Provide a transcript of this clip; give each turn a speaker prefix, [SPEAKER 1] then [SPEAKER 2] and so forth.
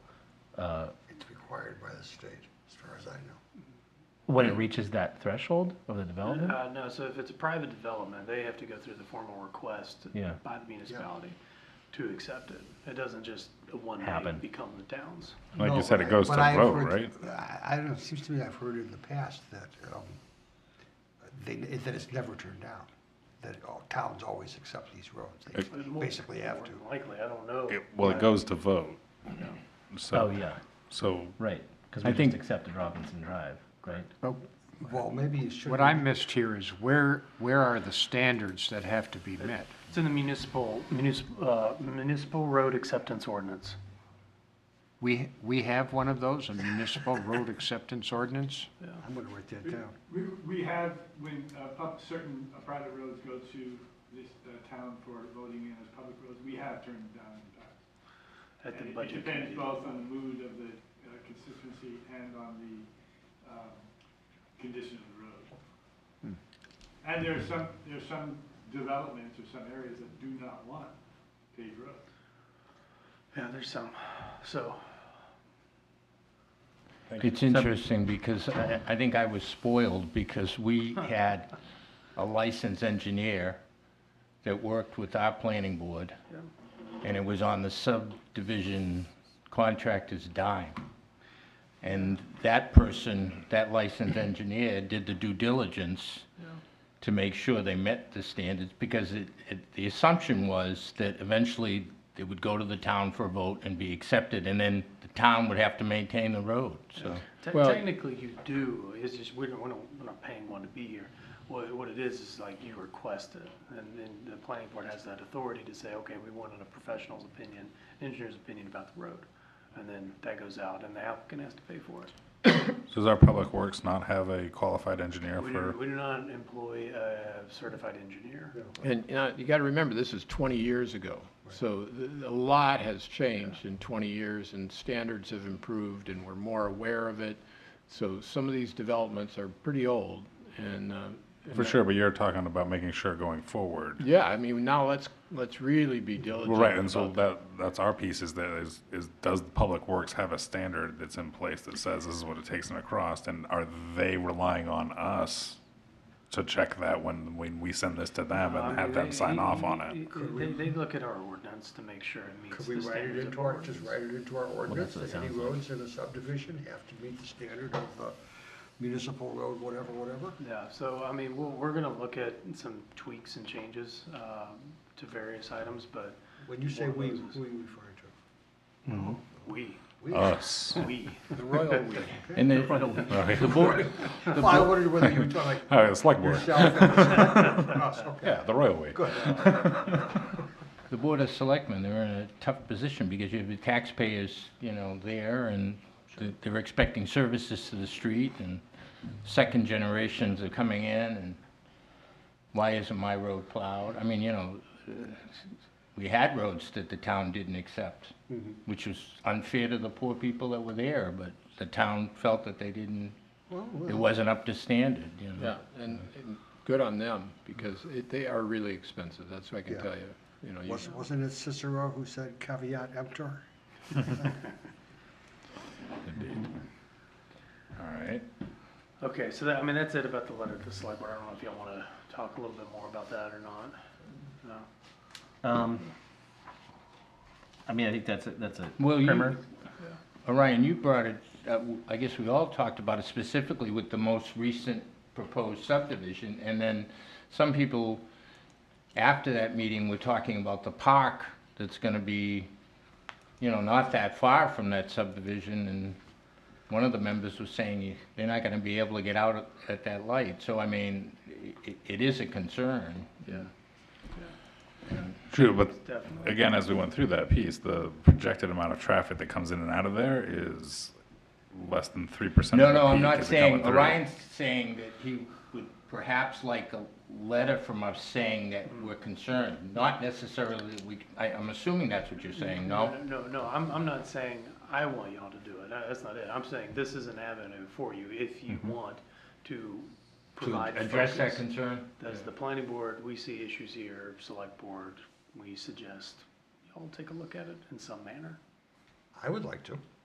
[SPEAKER 1] uh,
[SPEAKER 2] It's required by the state, as far as I know.
[SPEAKER 1] when it reaches that threshold of the development?
[SPEAKER 3] Uh, no, so if it's a private development, they have to go through the formal request
[SPEAKER 1] Yeah.
[SPEAKER 3] by the municipality to accept it. It doesn't just one day
[SPEAKER 1] Happen.
[SPEAKER 3] become the town's.
[SPEAKER 4] Like
[SPEAKER 2] No,
[SPEAKER 4] you said,
[SPEAKER 2] but
[SPEAKER 4] it
[SPEAKER 2] I-
[SPEAKER 4] goes to
[SPEAKER 2] but I've
[SPEAKER 4] vote,
[SPEAKER 2] heard-
[SPEAKER 4] right?
[SPEAKER 2] I, I don't know, it seems to me I've heard in the past that, um, they, that it's never turned down, that all towns always accept these roads. They
[SPEAKER 4] It-
[SPEAKER 2] basically have
[SPEAKER 3] More
[SPEAKER 2] to.
[SPEAKER 3] than Likely, I don't know.
[SPEAKER 4] It- Well, it goes to vote.
[SPEAKER 1] Oh,
[SPEAKER 4] So,
[SPEAKER 1] yeah,
[SPEAKER 4] so
[SPEAKER 1] right, because
[SPEAKER 5] I
[SPEAKER 1] we just
[SPEAKER 5] think-
[SPEAKER 1] accepted Robinson Drive, right?
[SPEAKER 5] But
[SPEAKER 2] Well, maybe you should.
[SPEAKER 5] what I missed here is where, where are the standards that have to be met?
[SPEAKER 3] It's in the municipal, municipal, uh, municipal road acceptance ordinance.
[SPEAKER 5] We, we have one of those, a municipal road acceptance ordinance?
[SPEAKER 2] I'm gonna write that down.
[SPEAKER 6] We, we have, when, uh, pub, certain uh, private roads go to this, uh, town for voting in as public roads, we have turned it down in the past.
[SPEAKER 3] At the
[SPEAKER 6] And it-
[SPEAKER 3] budget
[SPEAKER 6] It
[SPEAKER 3] committee.
[SPEAKER 6] depends both on the mood of the, uh, constituency and on the, um, condition of the road. And there are some, there are some developments or some areas that do not want paved roads.
[SPEAKER 3] Yeah, there's some, so,
[SPEAKER 7] It's interesting because I, I think I was spoiled because we had a licensed engineer that worked with our planning board. And it was on the subdivision contractor's dime. And that person, that licensed engineer, did the due diligence to make sure they met the standards because it, it, the assumption was that eventually it would go to the town for a vote and be accepted and then the town would have to maintain the road, so.
[SPEAKER 3] te-
[SPEAKER 5] Well-
[SPEAKER 3] technically you do, it's just, we don't, we don't, we're not paying one to be here. What, what it is, is like you request it, and then the planning board has that authority to say, okay, we wanted a professional's opinion, engineer's opinion about the road. And then that goes out, and the applicant has to pay for it.
[SPEAKER 4] does our public works not have a qualified engineer
[SPEAKER 3] We do,
[SPEAKER 4] for?
[SPEAKER 3] we do not employ a certified engineer.
[SPEAKER 8] And you, know, you got to remember, this is 20 years ago. So th- a lot has changed in 20 years, and standards have improved, and we're more aware of it. So some of these developments are pretty old, and. uh, and
[SPEAKER 4] For
[SPEAKER 8] that-
[SPEAKER 4] sure, but you're talking about making sure going forward.
[SPEAKER 8] Yeah, I mean, now let's, let's really be diligent.
[SPEAKER 4] Well, right, and so
[SPEAKER 8] about
[SPEAKER 4] that, that's our piece is that is, is does the public works have a standard that's in place that says this is what it takes them across? And are they relying on us to check that when, when we send this to them
[SPEAKER 3] I
[SPEAKER 4] and
[SPEAKER 3] mean,
[SPEAKER 4] have them
[SPEAKER 3] Um, they-
[SPEAKER 4] sign off
[SPEAKER 3] they-
[SPEAKER 4] on it?
[SPEAKER 3] They, they look at our ordinance to make sure it meets
[SPEAKER 2] Could we
[SPEAKER 3] the
[SPEAKER 2] write it
[SPEAKER 3] standards of
[SPEAKER 2] into our, just
[SPEAKER 3] ordinance.
[SPEAKER 2] write it into our ordinance,
[SPEAKER 1] what it
[SPEAKER 2] that any
[SPEAKER 1] sounds like.
[SPEAKER 2] roads in a subdivision have to meet the standard of the municipal road, whatever, whatever?
[SPEAKER 3] Yeah, so, I mean, we're, we're gonna look at some tweaks and changes, um, to various items, but
[SPEAKER 2] When you say
[SPEAKER 3] One of
[SPEAKER 2] we,
[SPEAKER 3] those is-
[SPEAKER 2] who are you referring to?
[SPEAKER 3] we,
[SPEAKER 2] We?
[SPEAKER 4] Us.
[SPEAKER 3] we,
[SPEAKER 5] The royal we.
[SPEAKER 7] And the, the board,
[SPEAKER 2] Well, I wondered whether you were talking like
[SPEAKER 4] Oh, it's like,
[SPEAKER 2] yourself and us, okay,
[SPEAKER 4] yeah, the royal way.
[SPEAKER 2] good.
[SPEAKER 7] the board of selectmen, they're in a tough position because you have the taxpayers, you know, there and th- they're expecting services to the street and second generations are coming in and why isn't my road plowed? I mean, you know, uh, we had roads that the town didn't accept, which was unfair to the poor people that were there, but the town felt that they didn't, it wasn't up to standard, you know?
[SPEAKER 8] Yeah, and, and good on them, because it, they are really expensive, that's what I can
[SPEAKER 2] Yeah.
[SPEAKER 8] tell you. You know, you-
[SPEAKER 2] Was- Wasn't it Cicero who said caveat emptor?
[SPEAKER 4] All right.
[SPEAKER 3] okay, so that, I mean, that's it about the letter to the select board, I don't know if y'all wanna talk a little bit more about that or not. No,
[SPEAKER 1] Um, I mean, I think that's, a- that's a
[SPEAKER 7] Well, you-
[SPEAKER 1] primer.
[SPEAKER 7] Orion, you brought it, uh, w- I guess we all talked about it specifically with the most recent proposed subdivision, and then some people, after that meeting, were talking about the park that's gonna be, you know, not that far from that subdivision, and one of the members was saying you- they're not gonna be able to get out at- at that light, so I mean, i- i- it is a concern.
[SPEAKER 3] yeah,
[SPEAKER 4] True, but
[SPEAKER 3] definitely.
[SPEAKER 4] again, as we went through that piece, the projected amount of traffic that comes in and out of there is less than three percent.
[SPEAKER 7] No, no, I'm not saying, Orion's saying that he would perhaps like a letter from us saying that
[SPEAKER 3] Hmm.
[SPEAKER 7] we're concerned, not necessarily that we, I, I'm assuming that's what you're saying, no?
[SPEAKER 3] No, no, I'm, I'm not saying I want y'all to do it, Uh, that's not it, I'm saying this is an avenue for you if you want to
[SPEAKER 7] Mm-hmm. To
[SPEAKER 3] provide
[SPEAKER 7] address that
[SPEAKER 3] focus.
[SPEAKER 7] concern?
[SPEAKER 3] As the planning board, we see issues here, select board, we suggest y'all take a look at it in some manner.
[SPEAKER 2] I would like to.